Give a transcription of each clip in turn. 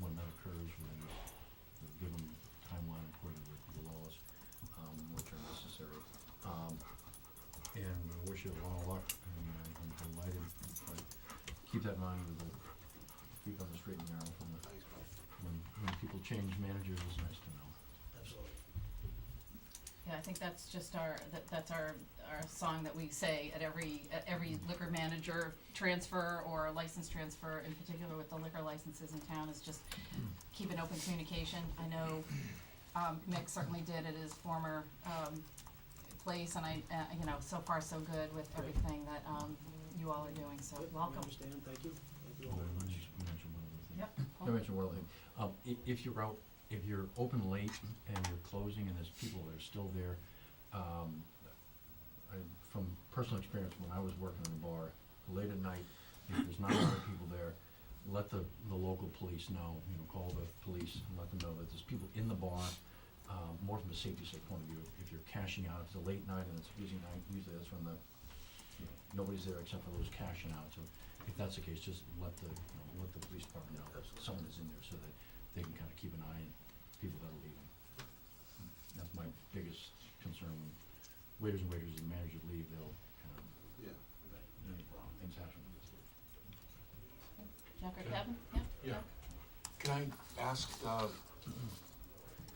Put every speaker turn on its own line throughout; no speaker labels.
um, keep that in mind with the, keep on the straight and narrow from the,
Thanks, Bill.
when, when people change managers, it's nice to know.
Absolutely.
Yeah, I think that's just our, that, that's our, our song that we say at every, at every liquor manager transfer or license transfer, in particular with the liquor licenses in town, is just keep an open communication. I know, um, Mick certainly did at his former, um, place, and I, uh, you know, so far so good with everything that, um, you all are doing, so
Good, we
welcome.
understand, thank you. Thank you all very
Let me
much.
just mention one other thing.
Yep.
I mentioned one other thing. Um, i- if you're out, if you're open late and you're closing and there's people that are still there, um, I, from personal experience, when I was working in a bar, late at night, if there's not a lot of people there, let the, the local police know, you know, call the police and let them know that there's people in the bar, um, more from a safety sake point of view. If you're cashing out, if it's a late night and it's a busy night, usually that's when the, you know, nobody's there except for those cashing out, so if that's the case, just let the, you know, let the police department know that
Absolutely.
someone is in there so that they can kind of keep an eye on people that are leaving. That's my biggest concern when waiters and waiters and managers leave, they'll kind of,
Yeah.
you know, things happen.
Jack or Kevin, yeah?
Yeah. Can I ask, uh,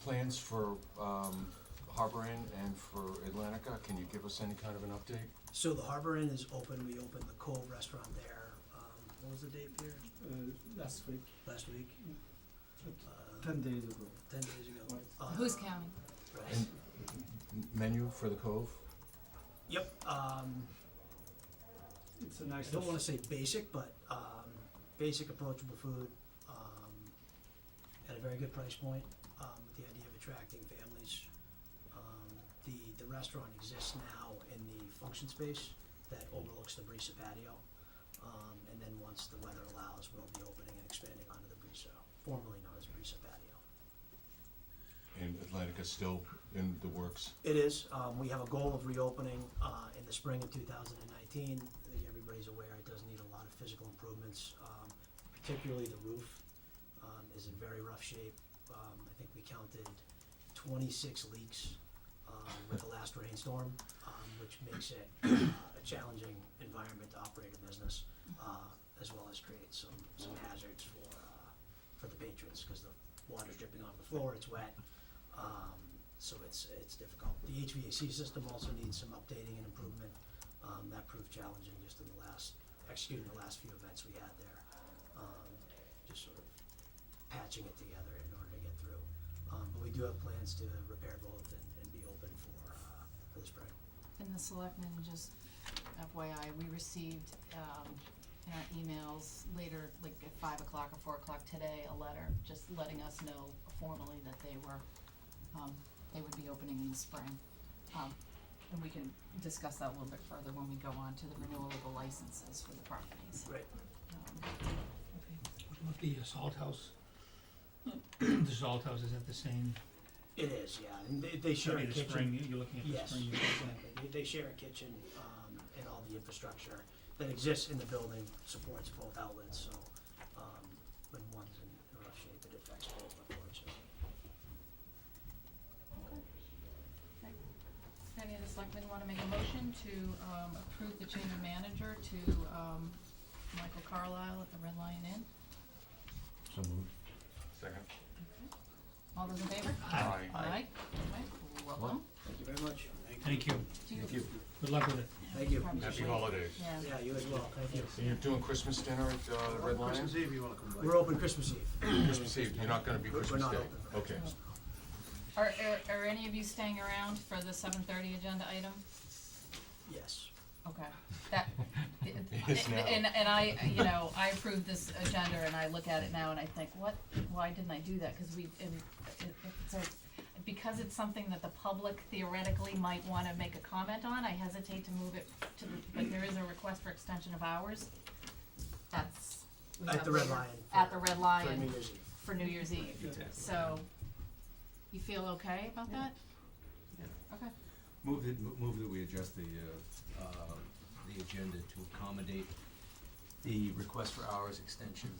plans for, um, Harbor Inn and for Atlantica, can you give us any kind of an update?
So the Harbor Inn is open, we opened the Cove Restaurant there, um, what was the date, Pierre?
uh, last week,
Last week? Uh,
ten days ago.
ten days ago. Uh,
Who's counting?
right.
And m- menu for the Cove?
Yep, um,
It's a
I
nice.
don't wanna say basic, but, um, basic approachable food, um, at a very good price point, um, with the idea of attracting families. Um, the, the restaurant exists now in the function space that overlooks the Brisa patio. Um, and then once the weather allows, we'll be opening and expanding onto the Brisa, formerly known as Brisa patio.
And Atlantica's still in the works?
It is, um, we have a goal of reopening, uh, in the spring of two thousand and nineteen. I think everybody's aware it does need a lot of physical improvements, um, particularly the roof, um, is in very rough shape. Um, I think we counted twenty-six leaks, um, with the last rainstorm, um, which makes it, uh, a challenging environment to operate a business, uh, as well as create some, some hazards for, uh, for the patrons, cause the water's dripping off the floor, it's wet. Um, so it's, it's difficult. The HVAC system also needs some updating and improvement. Um, that proved challenging just in the last, executing the last few events we had there. Um, just sort of patching it together in order to get through. Um, but we do have plans to repair both and, and be open for, uh, for the spring.
And the selectmen, just FYI, we received, um, in our emails later, like at five o'clock or four o'clock today, a letter just letting us know formally that they were, um, they would be opening in the spring. Um, and we can discuss that a little bit further when we go on to the renewal of the licenses for the properties.
Right.
Um,
What about the uh, salt house? The salt house, is that the same?
It is, yeah, and they, they share a
Should be
kitchen.
the spring, you're looking at the
Yes,
spring. you're looking at-
exactly. They- They share a kitchen um, and all the infrastructure that exists in the building supports both outlets, so um, when one's in rough shape, it affects both, unfortunately.
Any of the selectmen wanna make a motion to, um, approve the change of manager to, um, Michael Carlisle at the Red Lion Inn?
So moved.
Second.
All those in favor?
Aye.
Aye. Okay, welcome.
Thank you very much.
Thank you,
Do you-
good luck with it.
Thank you.
Probably
Happy
should-
holidays.
Yeah.
Yeah, you as well, thank you.
And you're doing Christmas dinner at, uh, the Red Lion?
Christmas Eve, you wanna come by?
We're open Christmas Eve.
Christmas Eve, you're not gonna be
We're- we're
Christmas
not
Day?
open for
Okay.
Are, are, are any of you staying around for the seven thirty agenda item?
Yes.
Okay, that,
is now.
and, and I, you know, I approved this agenda and I look at it now and I think, what, why didn't I do that? Cause we, and it, it's a, because it's something that the public theoretically might wanna make a comment on, I hesitate to move it to, the- but there is a request for extension of hours. That's. we
At
have
the Red
later.
Lion.
At the Red
For New
Lion
Year's Eve.
for New Year's Eve. So, you feel okay about that? Okay.
Move that, mo- move that we adjust the, uh, uh, the agenda to accommodate the request for hours extension